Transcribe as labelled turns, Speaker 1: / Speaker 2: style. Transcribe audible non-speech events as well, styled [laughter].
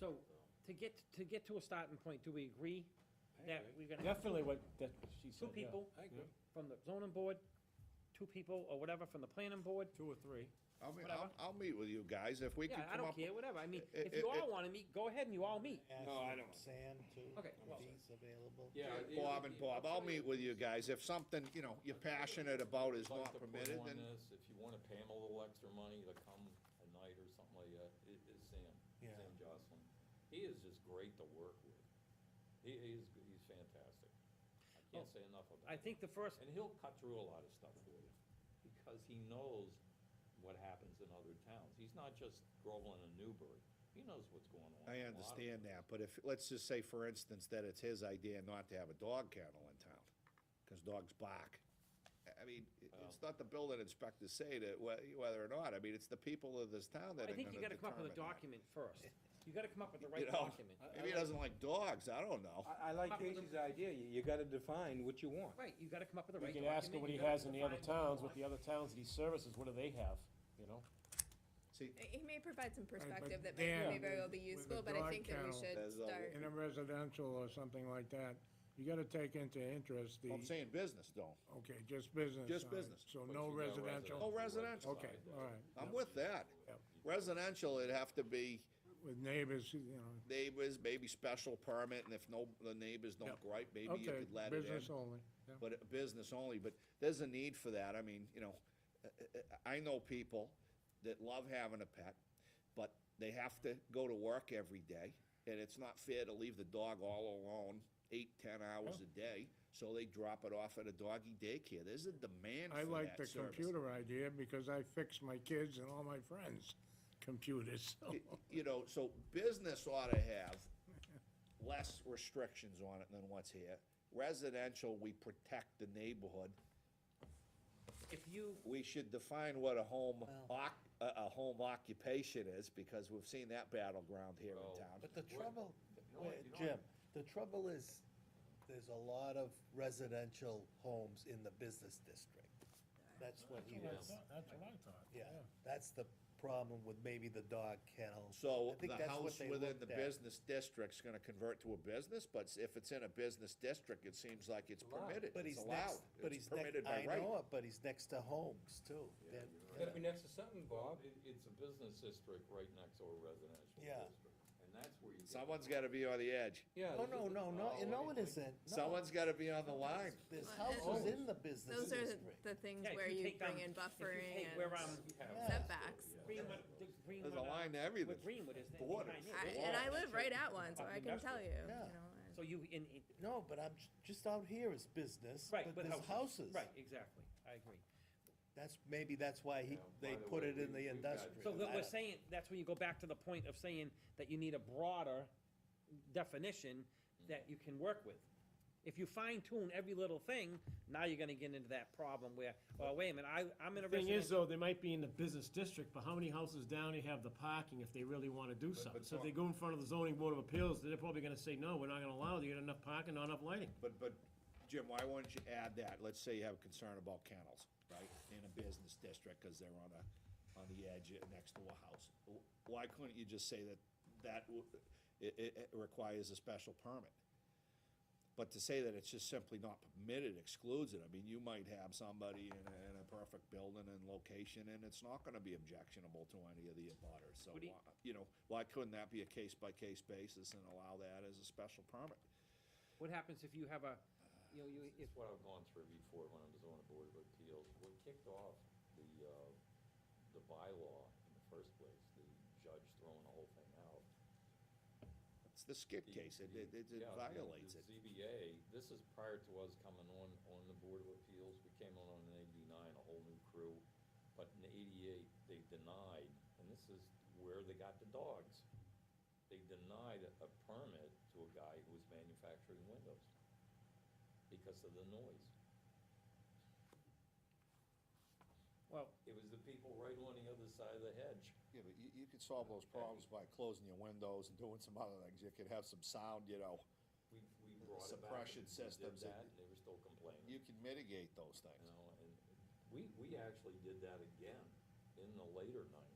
Speaker 1: So, to get, to get to a starting point, do we agree that we're gonna have
Speaker 2: Definitely what, that, she
Speaker 1: two
Speaker 2: said, yeah.
Speaker 1: people
Speaker 3: I agree.
Speaker 1: from the zoning board, two people or whatever from the planning board?
Speaker 2: Two or three.
Speaker 4: I'll, meet-
Speaker 1: Whatever.
Speaker 4: I'll, I'll meet with you guys if we
Speaker 1: Yeah,
Speaker 4: can
Speaker 1: I
Speaker 4: come
Speaker 1: don't
Speaker 4: up.
Speaker 1: care, whatever, I mean,
Speaker 4: I-
Speaker 1: if
Speaker 4: I-
Speaker 1: you all
Speaker 4: I-
Speaker 1: wanna meet, go ahead and you all meet.
Speaker 3: No, I don't.
Speaker 5: Sam too,
Speaker 1: Okay,
Speaker 5: if
Speaker 1: well-
Speaker 5: he's available.
Speaker 3: Yeah.
Speaker 4: Yeah, Bob and Bob, I'll meet with you guys. If something, you know, you're passionate about is
Speaker 6: I'd like
Speaker 4: not
Speaker 6: to put
Speaker 4: permitted,
Speaker 6: on
Speaker 4: then
Speaker 6: this, If you wanna pay him a little extra money to come a night or something like that, it is Sam,
Speaker 5: Yeah.
Speaker 6: Sam Jocelyn. He is just great to work with. He, he's, he's fantastic. I
Speaker 7: Oh,
Speaker 6: can't say enough about
Speaker 1: I
Speaker 6: him.
Speaker 1: think the first,
Speaker 6: And he'll cut through a lot of stuff for you, because he knows what happens in other towns. He's not just Groveland and Newbury. He knows what's going on.
Speaker 4: I
Speaker 6: in a lot of
Speaker 4: understand that, but if, let's just say, for instance, that it's his idea not to have a dog kennel in town, because dogs bark. I- I mean, i- it's
Speaker 1: Oh.
Speaker 4: not the building inspectors say that, whe- whether or not, I mean, it's the people of this town that
Speaker 1: I
Speaker 4: are
Speaker 1: think you
Speaker 4: gonna
Speaker 1: gotta come up with a
Speaker 4: determine that.
Speaker 1: document first. You gotta come up with the
Speaker 4: You
Speaker 1: right
Speaker 4: know?
Speaker 1: document.
Speaker 4: Maybe he doesn't like dogs, I don't know.
Speaker 3: I, I
Speaker 4: [laughs]
Speaker 3: like Casey's idea, you, you gotta define what you want.
Speaker 1: Right, you gotta come up with the right
Speaker 2: We can
Speaker 1: document.
Speaker 2: ask him what
Speaker 1: you
Speaker 2: he
Speaker 1: gotta
Speaker 2: has in the other
Speaker 1: define what you
Speaker 2: towns, what
Speaker 1: want.
Speaker 2: the other towns that he services, what do they have, you know?
Speaker 4: See,
Speaker 8: He may provide some
Speaker 7: but
Speaker 8: perspective that may, may
Speaker 7: Dan,
Speaker 8: very well be
Speaker 7: with the
Speaker 8: useful, but I
Speaker 7: dog
Speaker 8: think that we
Speaker 7: kennel-
Speaker 8: should
Speaker 4: There's a-
Speaker 8: start.
Speaker 7: in a residential or something like that, you gotta take into interest the,
Speaker 4: I'm saying business, don't.
Speaker 7: okay, just business.
Speaker 4: Just
Speaker 7: all right.
Speaker 4: business.
Speaker 7: So
Speaker 6: But
Speaker 7: no
Speaker 6: you got
Speaker 4: No
Speaker 7: residential,
Speaker 4: Oh, residential.
Speaker 7: okay, all right,
Speaker 4: I'm with that.
Speaker 7: Yep.
Speaker 4: Residential, it'd have to be
Speaker 7: with neighbors, you know,
Speaker 4: neighbors, maybe special permit, and if no, the neighbors don't
Speaker 7: Yep.
Speaker 4: gripe, maybe you
Speaker 7: okay,
Speaker 4: could let it in.
Speaker 7: business only, yeah.
Speaker 4: but uh, business only, but there's a need for that, I mean, you know, uh, uh, uh, I know people that love having a pet, but they have to go to work every day, and it's not fair to leave the dog all alone eight, ten hours a day, so they drop it off at a doggy daycare, there's a demand
Speaker 7: I
Speaker 4: for
Speaker 7: like
Speaker 4: that
Speaker 7: the
Speaker 4: service.
Speaker 7: computer idea because I fix my kids and all my friends' computers, so.
Speaker 4: Y- You know, so business ought to have less restrictions on it than what's here, residential, we protect the neighborhood,
Speaker 1: If you,
Speaker 4: we should define what a home oc, a, a home occupation is, because we've seen that battleground here in town.
Speaker 5: But the trouble,
Speaker 6: know what,
Speaker 5: wait,
Speaker 6: you know
Speaker 5: Jim, the trouble is, there's a lot of residential homes in the business district. That's what he was,
Speaker 7: That's what I thought.
Speaker 5: yeah, that's the problem with maybe the dog kennel.
Speaker 4: So
Speaker 5: I think
Speaker 4: the
Speaker 5: that's what
Speaker 4: house
Speaker 5: they
Speaker 4: within
Speaker 5: looked
Speaker 4: the
Speaker 5: at.
Speaker 4: business district's gonna convert to a business, but s- if it's in a business district, it seems like it's permitted,
Speaker 5: But
Speaker 4: it's
Speaker 5: he's
Speaker 4: allowed,
Speaker 5: next, but
Speaker 4: it's
Speaker 5: he's next,
Speaker 4: permitted by
Speaker 5: I
Speaker 4: right.
Speaker 5: know it, but he's next to homes too. They're-
Speaker 3: Gotta be next to something, Bob.
Speaker 6: It, it's a business district right next to a residential
Speaker 5: Yeah.
Speaker 6: district, and that's where you get.
Speaker 4: Someone's gotta be on the edge,
Speaker 3: Yeah.
Speaker 5: No, Oh, no,
Speaker 2: Oh,
Speaker 5: no, no, no, it isn't. No.
Speaker 4: someone's gotta be on the line.
Speaker 5: There's houses in the business
Speaker 8: Those are the-
Speaker 5: district.
Speaker 8: the things
Speaker 1: yeah, if
Speaker 8: where
Speaker 1: you
Speaker 8: you
Speaker 1: take down, if
Speaker 8: bring in
Speaker 1: you
Speaker 8: buffering
Speaker 1: take
Speaker 8: and
Speaker 1: where, um,
Speaker 8: setbacks.
Speaker 1: Greenwood, the Greenwood.
Speaker 4: There's a
Speaker 1: uh,
Speaker 4: line to everything.
Speaker 1: With Greenwood, isn't it?
Speaker 4: Borders,
Speaker 1: Behind
Speaker 8: I-
Speaker 1: it.
Speaker 8: And I live right at one, so
Speaker 1: Up
Speaker 8: I
Speaker 1: in
Speaker 8: can tell you,
Speaker 1: Bedford.
Speaker 8: you
Speaker 5: Yeah.
Speaker 8: know. I-
Speaker 1: So you, in, in,
Speaker 5: No, but I'm, j- just out here is business,
Speaker 1: right,
Speaker 5: but
Speaker 1: with
Speaker 5: there's houses.
Speaker 1: Right, exactly, I agree.
Speaker 5: That's, maybe that's why he,
Speaker 6: Yeah,
Speaker 5: they
Speaker 6: by the
Speaker 5: put
Speaker 6: way,
Speaker 5: it in
Speaker 6: we-
Speaker 5: the
Speaker 6: we've got-
Speaker 5: industrial.
Speaker 1: So that
Speaker 5: I
Speaker 1: we're
Speaker 5: don't-
Speaker 1: saying, that's when you go back to the point of saying that you need a broader definition that you can work with. If you fine tune every little thing, now you're gonna get into that problem where, well, wait a minute, I, I'm in a
Speaker 2: Thing
Speaker 1: residential.
Speaker 2: is though, they might be in the business district, but how many houses down they have the parking if they really wanna do something? So if they go in front of the zoning board of appeals, they're probably gonna say, no, we're not gonna allow it, you got enough parking, not enough lighting.
Speaker 4: But, but Jim, why wouldn't you add that? Let's say you have a concern about kennels, right, in a business district, cause they're on a, on the edge uh, next to a house. W- Why couldn't you just say that, that, w- it, it, it requires a special permit? But to say that it's just simply not permitted excludes it. I mean, you might have somebody in a, in a perfect building and location, and it's not gonna be objectionable to any of the abutters, so,
Speaker 1: What do you-
Speaker 4: why- you know, why couldn't that be a case-by-case basis and allow that as a special permit?
Speaker 1: What happens if you have a, you know, you, if
Speaker 6: It's what I've gone through before when I was on the Board of Appeals. What kicked off the, uh, the bylaw in the first place, the judge throwing the whole thing out.
Speaker 4: It's the skip
Speaker 6: the-
Speaker 4: case, it,
Speaker 6: the-
Speaker 4: it- it it
Speaker 6: yeah, the-
Speaker 4: violates
Speaker 6: the
Speaker 4: it.
Speaker 6: ZBA, this is prior to us coming on, on the Board of Appeals, we came on in eighty-nine, a whole new crew. But in eighty-eight, they denied, and this is where they got the dogs. They denied a- a permit to a guy who was manufacturing windows because of the noise.
Speaker 1: Well,
Speaker 6: It was the people right on the other side of the hedge.
Speaker 4: Yeah, but you, you could solve those problems by closing your windows and doing some other things, you could have some sound, you know,
Speaker 6: We, we brought it back.
Speaker 4: Suppression
Speaker 6: and we did
Speaker 4: systems that-
Speaker 6: that, and they were still complaining.
Speaker 4: you can mitigate those
Speaker 6: You
Speaker 4: things.
Speaker 6: know, and we, we actually did that again in the later night.